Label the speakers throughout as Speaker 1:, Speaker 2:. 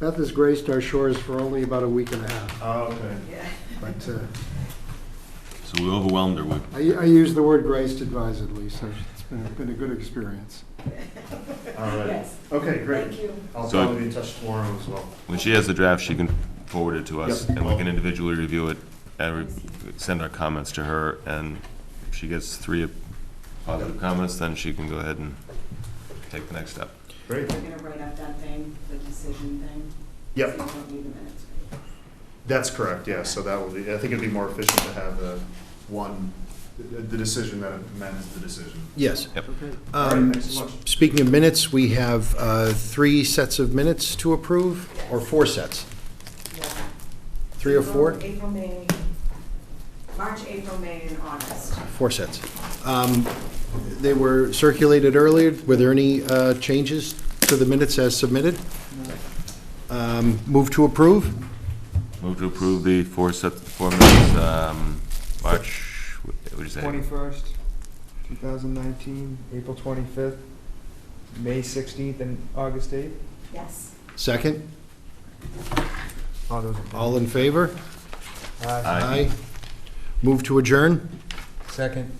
Speaker 1: Beth has graced our shores for only about a week and a half,
Speaker 2: Oh, okay.
Speaker 1: but uh,
Speaker 3: So we overwhelmed her with
Speaker 1: I I use the word graced advisedly, so it's been been a good experience.
Speaker 2: All right.
Speaker 4: Yes,
Speaker 2: Okay,
Speaker 4: thank
Speaker 2: great.
Speaker 4: you.
Speaker 2: I'll
Speaker 3: So-
Speaker 2: probably be in touch tomorrow as well.
Speaker 3: When she has the draft, she can forward it to us,
Speaker 2: Yep.
Speaker 3: and we can individually review it, and re- send our comments to her, and if she gets three positive comments, then she can go ahead and take the next step.
Speaker 2: Great.
Speaker 4: We're gonna write up that thing, the decision thing.
Speaker 2: Yep,
Speaker 4: So you don't need the minutes.
Speaker 2: that's correct, yeah, so that will be, I think it'd be more efficient to have the one, the the decision that amends the decision.
Speaker 5: Yes.
Speaker 1: Okay.
Speaker 2: All right,
Speaker 5: Um,
Speaker 2: thanks so much.
Speaker 5: Speaking of minutes, we have uh, three sets of minutes to approve, or four sets?
Speaker 4: Yeah.
Speaker 5: Three or four?
Speaker 4: April- April, May, March, April, May, and August.
Speaker 5: Four sets. Um, They were circulated earlier. Were there any uh, changes to the minutes as submitted? Um, Move to approve?
Speaker 3: Move to approve the four sets, four minutes, um, March, what did you say?
Speaker 6: Twenty-first, two thousand nineteen, April twenty-fifth, May sixteenth, and August eighth.
Speaker 4: Yes.
Speaker 5: Second?
Speaker 6: All those in favor?
Speaker 5: All in favor?
Speaker 6: Aye.
Speaker 3: Aye.
Speaker 5: Move to adjourn?
Speaker 6: Second.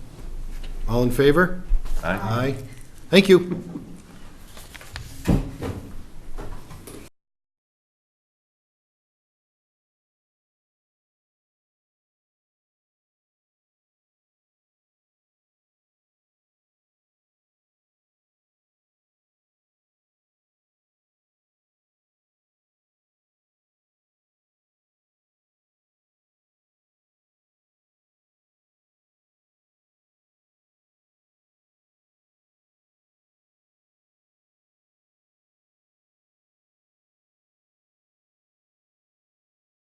Speaker 5: All in favor?
Speaker 3: Aye.
Speaker 5: Aye. Thank you.